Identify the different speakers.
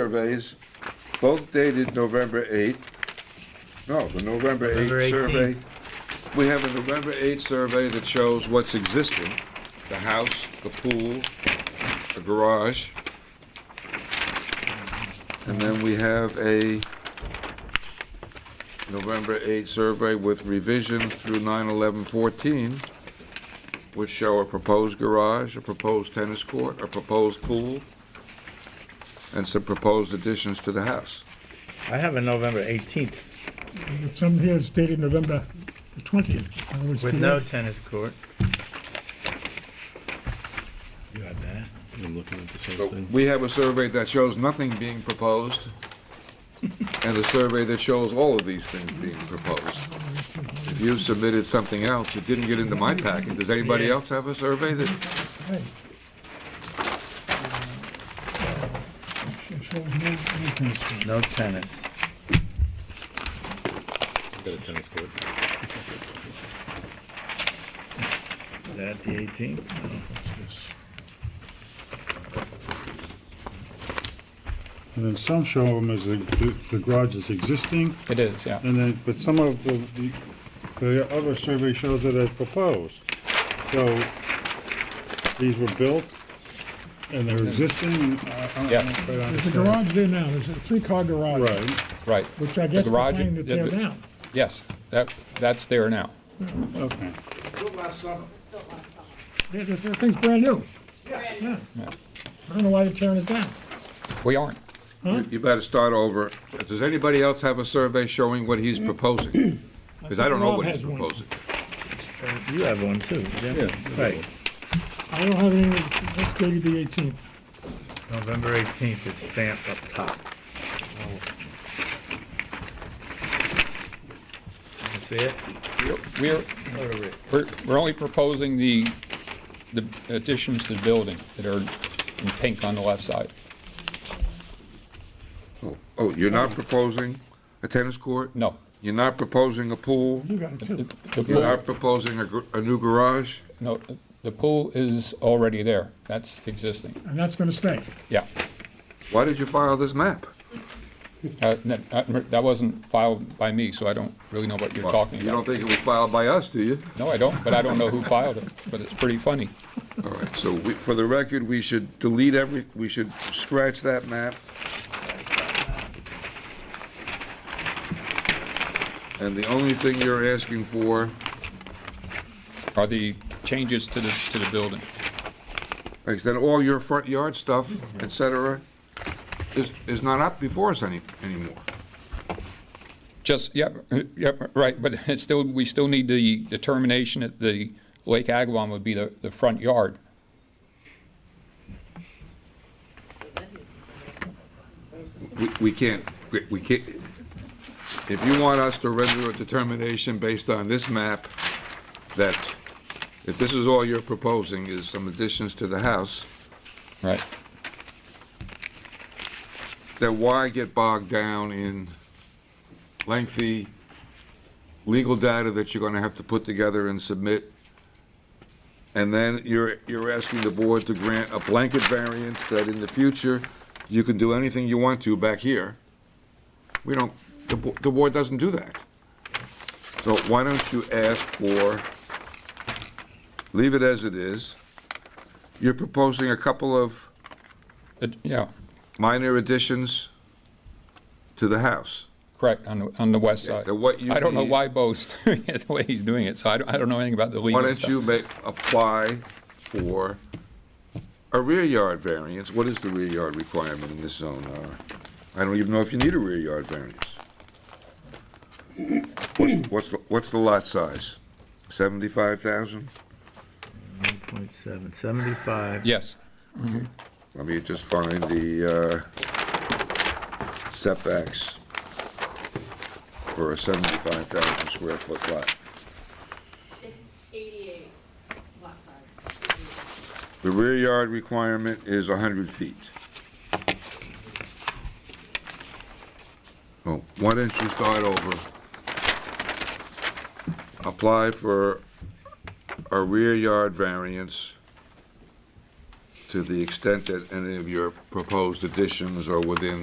Speaker 1: surveys, both dated November 8th. No, the November
Speaker 2: November
Speaker 1: 8th survey. We have a November 8th survey that shows what's existing, the house, the pool, the garage. And then we have a November 8th survey with revision through 9/11/14, which show a proposed garage, a proposed tennis court, a proposed pool, and some proposed additions to the house.
Speaker 2: I have a November 18th
Speaker 3: But some here is dated November the twentieth.
Speaker 2: with no tennis court.
Speaker 4: You had that? I'm looking at the same
Speaker 1: So
Speaker 4: thing.
Speaker 1: We have a survey that shows nothing being proposed, and a survey that shows all of these things being proposed. If you submitted something else, it didn't get into my packet, does anybody
Speaker 2: Yeah.
Speaker 1: else have a survey that,
Speaker 2: No tennis.
Speaker 4: Got a tennis court.
Speaker 2: Is that the 18th?
Speaker 5: And then some show them as the, the garage is existing,
Speaker 6: It is, yeah.
Speaker 5: and then, but some of the, the- the other survey shows it as proposed. So, these were built, and they're existing, I, I
Speaker 6: Yeah.
Speaker 5: don't quite
Speaker 3: There's a
Speaker 5: understand.
Speaker 3: garage there now, there's a three-car garage,
Speaker 5: Right,
Speaker 6: Right.
Speaker 3: which I guess
Speaker 6: The
Speaker 3: they're
Speaker 6: garage-
Speaker 3: planning to tear
Speaker 6: yeah, the-
Speaker 3: down.
Speaker 6: Yes, that, that's there now.
Speaker 5: okay.
Speaker 3: The the- the thing's brand new. Yeah. I don't know why they're tearing it down.
Speaker 6: We aren't.
Speaker 1: you better start over. Does anybody else have a survey showing what he's proposing? Because I don't know what he's
Speaker 3: Rob has one.
Speaker 1: proposing.
Speaker 2: You have one too, yeah? Right,
Speaker 3: I don't have any, that's dated the eighteenth.
Speaker 2: November 18th is stamped up top. You see it?
Speaker 6: We're, we're, we're only proposing the, the additions to the building that are in pink on the left side.
Speaker 1: Oh, Oh, you're not proposing a tennis court?
Speaker 6: No.
Speaker 1: You're not proposing a pool?
Speaker 3: You got it
Speaker 6: The
Speaker 3: too.
Speaker 6: the
Speaker 1: You're
Speaker 6: pool,
Speaker 1: not proposing a, gr- a new garage?
Speaker 6: no, the pool is already there. That's existing,
Speaker 3: And that's gonna stay.
Speaker 6: yeah.
Speaker 1: Why did you file this map?
Speaker 6: Uh, That uh, that wasn't filed by me, so I don't really know what you're talking
Speaker 1: You don't
Speaker 6: about.
Speaker 1: think it was filed by us, do you?
Speaker 6: No, I don't, but I don't know who filed it, but it's pretty funny.
Speaker 1: All right, so we, for the record, we should delete every, we should scratch that map. And the only thing you're asking for,
Speaker 6: Are the changes to the, to the building?
Speaker 1: like, then all your front yard stuff, et cetera, is, is not up before us any, anymore.
Speaker 6: Just, yep, yep, right, but it's still, we still need the determination that the Lake Agawam would be the, the front yard.
Speaker 1: We, we can't, we- we can't, if you want us to render a determination based on this map, that if this is all you're proposing is some additions to the house,
Speaker 6: Right.
Speaker 1: then why get bogged down in lengthy legal data that you're gonna have to put together and submit? And then you're, you're asking the board to grant a blanket variance that in the future, you can do anything you want to back here. We don't, the, bo- the board doesn't do that. So why don't you ask for, leave it as it is. You're proposing a couple of
Speaker 6: It- Yeah,
Speaker 1: minor additions to the house.
Speaker 6: correct, on, the on the west
Speaker 1: Yeah,
Speaker 6: side.
Speaker 1: then what you
Speaker 6: I don't know
Speaker 1: need-
Speaker 6: why Bo's doing it the way he's doing it, so I don't, I don't know anything about the
Speaker 1: Why
Speaker 6: legal
Speaker 1: don't you
Speaker 6: stuff.
Speaker 1: make, apply for a rear yard variance? What is the rear yard requirement in this zone, Nara? I don't even know if you need a rear yard variance. What's- What's, the- what's the lot size? Seventy-five thousand?
Speaker 2: 1.7, 75.
Speaker 6: Yes,
Speaker 1: Let me just find the uh, setbacks for a seventy-five thousand square foot lot.
Speaker 7: It's eighty-eight lot size.
Speaker 1: The rear yard requirement is 100 feet. Well, why don't you start over? Apply for a rear yard variance to the extent that any of your proposed additions are within